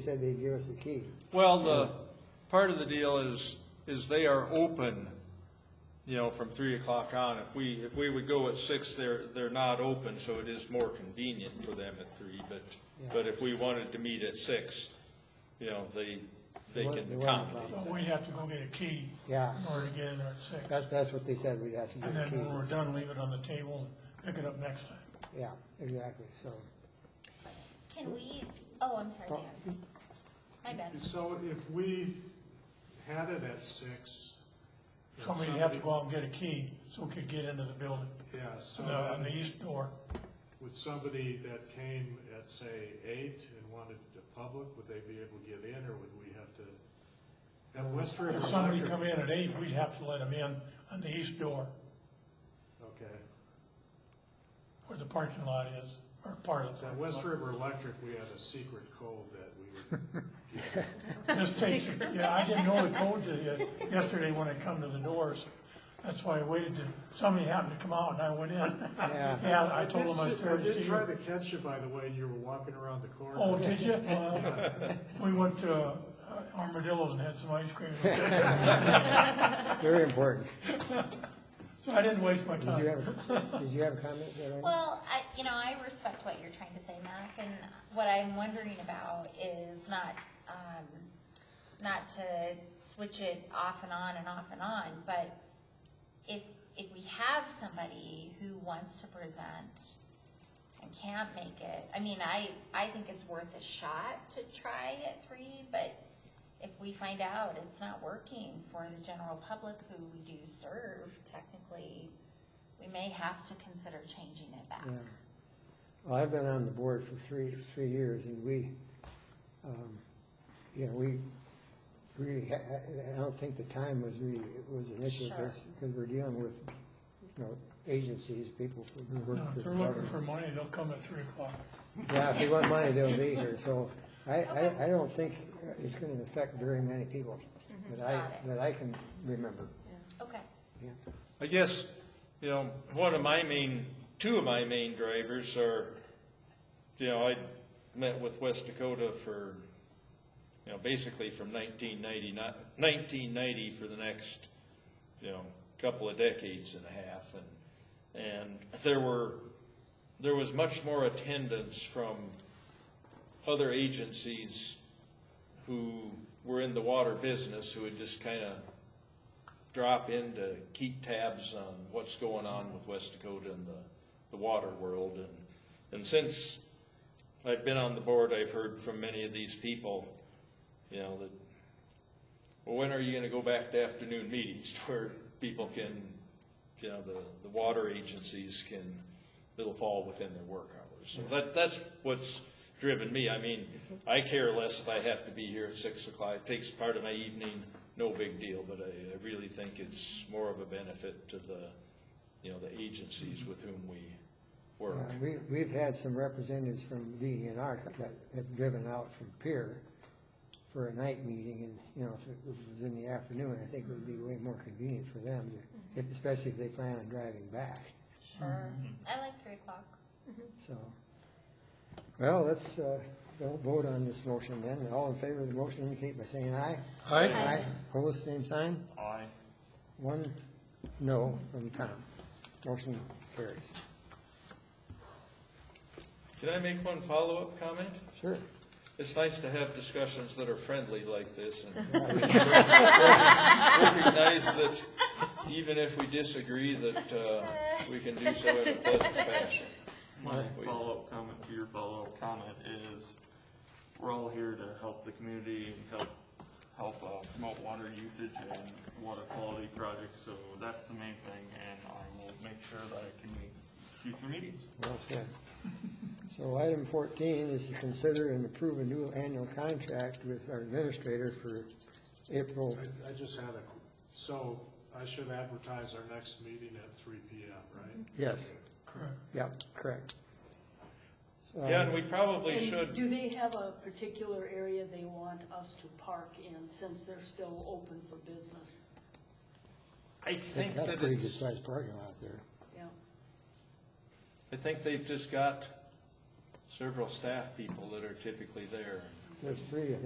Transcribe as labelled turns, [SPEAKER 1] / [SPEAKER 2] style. [SPEAKER 1] said they'd give us the key.
[SPEAKER 2] Well, the, part of the deal is, is they are open, you know, from three o'clock on. If we, if we would go at six, they're, they're not open, so it is more convenient for them at three, but, but if we wanted to meet at six, you know, they, they
[SPEAKER 1] They
[SPEAKER 2] can
[SPEAKER 1] weren't- they weren't
[SPEAKER 2] accommodate.
[SPEAKER 3] But we'd have to go get a key.
[SPEAKER 1] Yeah.
[SPEAKER 3] In order to get in there at six.
[SPEAKER 1] That's, that's what they said, we'd have to get
[SPEAKER 3] And
[SPEAKER 1] the
[SPEAKER 3] then when we're
[SPEAKER 1] key.
[SPEAKER 3] done, leave it on the table and pick it up next time.
[SPEAKER 1] Yeah, exactly, so.
[SPEAKER 4] Can we, oh, I'm sorry, Dan. My bad.
[SPEAKER 5] So if we had it at six. if
[SPEAKER 3] Somebody'd have to go out and get a key so we could get into the building,
[SPEAKER 5] Yeah, so
[SPEAKER 3] No, on the
[SPEAKER 5] then
[SPEAKER 3] east door.
[SPEAKER 5] would somebody that came at, say, eight and wanted the public, would they be able to get in, or would we have to? At West River
[SPEAKER 3] If
[SPEAKER 5] Electric.
[SPEAKER 3] somebody come in at eight, we'd have to let them in on the east door
[SPEAKER 5] Okay,
[SPEAKER 3] where the parking lot is, or part of the
[SPEAKER 5] at
[SPEAKER 3] parking
[SPEAKER 5] West
[SPEAKER 3] lot.
[SPEAKER 5] River Electric, we had a secret code that we would,
[SPEAKER 3] This takes, yeah, I didn't know the code to, yesterday when I come to the doors. That's why I waited till somebody happened to come out and I went in.
[SPEAKER 1] Yeah.
[SPEAKER 3] Yeah, I told
[SPEAKER 5] did
[SPEAKER 3] them I
[SPEAKER 5] see-
[SPEAKER 3] was
[SPEAKER 5] I
[SPEAKER 3] Thursday.
[SPEAKER 5] did try to catch you, by the way, you were walking around the corner.
[SPEAKER 3] Oh, did you? Well, we went to uh, Armadillo's and had some ice cream.
[SPEAKER 1] Very important.
[SPEAKER 3] So I didn't waste my
[SPEAKER 1] Did you
[SPEAKER 3] time.
[SPEAKER 1] have, did you have a comment there, Randy?
[SPEAKER 4] Well, I, you know, I respect what you're trying to say, Mac, and what I'm wondering about is not, um, not to switch it off and on and off and on, but if, if we have somebody who wants to present and can't make it, I mean, I, I think it's worth a shot to try at three, but if we find out it's not working for the general public who we do serve technically, we may have to consider changing it back.
[SPEAKER 1] Yeah. Well, I've been on the board for three, three years, and we, um, you know, we really, ha- I don't think the time was really, it was an issue,
[SPEAKER 4] Sure.
[SPEAKER 1] because we're dealing with, you know, agencies, people who work
[SPEAKER 3] No,
[SPEAKER 1] for
[SPEAKER 3] If
[SPEAKER 1] the
[SPEAKER 3] they're looking
[SPEAKER 1] government.
[SPEAKER 3] for money, they'll come at three o'clock.
[SPEAKER 1] Yeah, if they want money, they'll be here, so I, I, I don't think it's gonna affect very many people that I,
[SPEAKER 4] Mm-hmm. Got it.
[SPEAKER 1] that I can remember,
[SPEAKER 4] Okay.
[SPEAKER 1] yeah.
[SPEAKER 2] I guess, you know, one of my main, two of my main drivers are, you know, I met with West Dakota for, you know, basically from 1990 1990 for the next, you know, couple of decades and a half, and, and there were, there was much more attendance from other agencies who were in the water business, who had just kind of drop in to keep tabs on what's going on with West Dakota and the, the water world. And, and since I've been on the board, I've heard from many of these people, you know, that, well, when are you gonna go back to afternoon meetings where people can, you know, the, the water agencies can, it'll fall within their work hours. So that, that's what's driven me. I mean, I care less if I have to be here at six o'clock. It takes part of my evening, no big deal, but I, I really think it's more of a benefit to the, you know, the agencies with whom we work.
[SPEAKER 1] Uh, We, we've had some representatives from DENR that have driven out from Pier for a night meeting, and, you know, if it was in the afternoon, I think it would be way more convenient for them, to-
[SPEAKER 4] Mm-hmm.
[SPEAKER 1] if- especially if they plan on driving back,
[SPEAKER 4] Sure. I like three o'clock.
[SPEAKER 1] so. Well, let's, uh, go vote on this motion then, all in favor of the motion indicate by saying aye. Aye. Aye, opposed, same sign?
[SPEAKER 2] Aye.
[SPEAKER 1] One no from Tom. Motion carries.
[SPEAKER 2] Can I make one follow-up comment?
[SPEAKER 1] Sure.
[SPEAKER 2] It's nice to have discussions that are friendly like this and recognize that even if we disagree, that uh, we can do so in a pleasant fashion.
[SPEAKER 6] My follow-up comment to your follow-up comment is, we're all here to help the community and help, help uh, promote water usage and water quality projects, so that's the main thing, and I will make sure that I can make future meetings.
[SPEAKER 1] Well said. So item fourteen is to consider and approve a new annual contract with our administrator for April.
[SPEAKER 5] I, I just had a, so I should advertise our next meeting at three P M, right?
[SPEAKER 1] Yes,
[SPEAKER 3] Correct.
[SPEAKER 1] yep, correct. So,
[SPEAKER 2] Yeah, and we probably
[SPEAKER 7] And
[SPEAKER 2] should,
[SPEAKER 7] Do they have a particular area they want us to park in, since they're still open for business?
[SPEAKER 2] I
[SPEAKER 1] They've
[SPEAKER 2] think
[SPEAKER 1] got a
[SPEAKER 2] that
[SPEAKER 1] pretty good
[SPEAKER 2] it's,
[SPEAKER 1] sized parking lot there.
[SPEAKER 7] Yeah,
[SPEAKER 2] I think they've just got several staff people that are typically there.
[SPEAKER 1] There's three, I think.